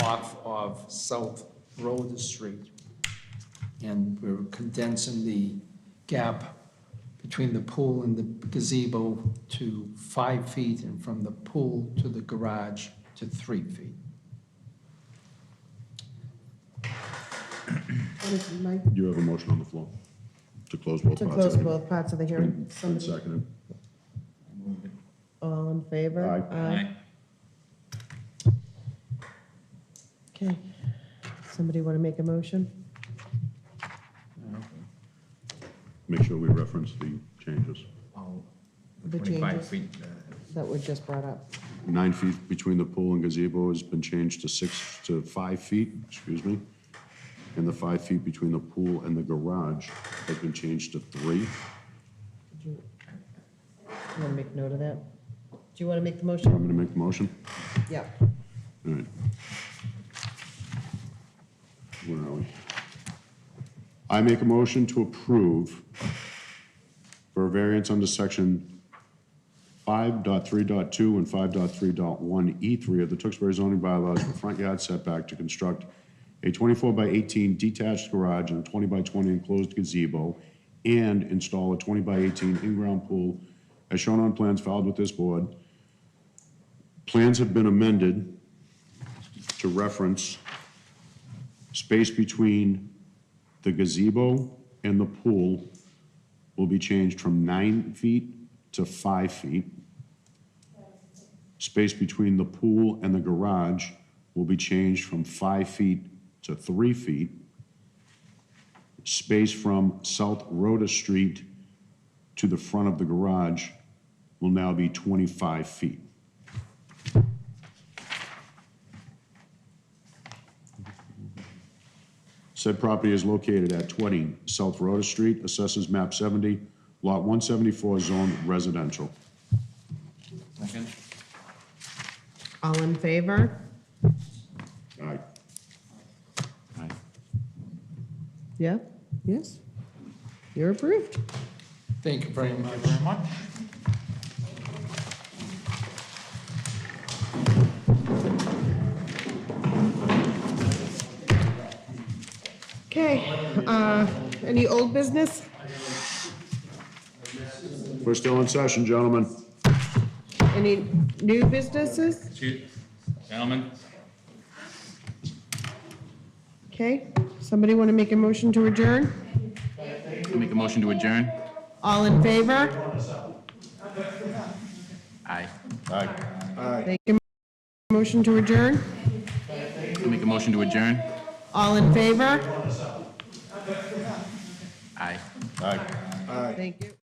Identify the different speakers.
Speaker 1: off of South Road Street. And we're condensing the gap between the pool and the gazebo to five feet and from the pool to the garage to three feet.
Speaker 2: What is it, Mike?
Speaker 3: You have a motion on the floor to close both
Speaker 2: To
Speaker 3: parts.
Speaker 2: close
Speaker 3: of it.
Speaker 2: both parts of the hearing.
Speaker 3: Been
Speaker 2: Somebody,
Speaker 3: seconded.
Speaker 2: all in favor?
Speaker 3: Aye.
Speaker 2: Okay. Somebody want to make a motion?
Speaker 3: Make sure we reference the changes.
Speaker 4: all
Speaker 2: The
Speaker 4: the 25
Speaker 2: changes.
Speaker 4: feet. uh,
Speaker 2: That were just brought up.
Speaker 3: Nine feet between the pool and gazebo has been changed to six, to five feet, excuse me. And the five feet between the pool and the garage has been changed to three.
Speaker 2: Did You want to make note of that? Do you want to make the
Speaker 3: I'm
Speaker 2: motion?
Speaker 3: going to make the motion.
Speaker 2: Yeah.
Speaker 3: All right. Where are we? I make a motion to approve for a variance under section 5.3.2 and 5.3.1E3 E of the Tewksbury zoning bylaws for front yard setback to construct a 24 by 18 detached garage and a 20 by 20 enclosed gazebo, and install a 20 by 18 in-ground pool as shown on plans filed with this board. Plans have been amended to reference space between the gazebo and the pool will be changed from nine feet to five feet. Space between the pool and the garage will be changed from five feet to three feet. Space from South Rhoda Street to the front of the garage will now be 25 feet. Said property is located at 20 South Rhoda Street, Assessors Map 70, Lot 174, Zone Residential.
Speaker 4: Second?
Speaker 2: All in favor?
Speaker 3: All right,
Speaker 4: Aye.
Speaker 2: Yeah? Yes? You're approved.
Speaker 1: Thank you very much.
Speaker 4: Thank you very much.
Speaker 2: Okay. uh, Any old business?
Speaker 3: we're still in session, gentlemen.
Speaker 2: Any new businesses?
Speaker 4: Excuse, gentlemen,
Speaker 2: Okay. Somebody want to make a motion to adjourn?
Speaker 4: make a motion to adjourn?
Speaker 2: All in favor?
Speaker 4: Aye.
Speaker 2: Make a motion to adjourn?
Speaker 4: Make a motion to adjourn?
Speaker 2: All in favor?
Speaker 4: Aye.
Speaker 2: Thank you.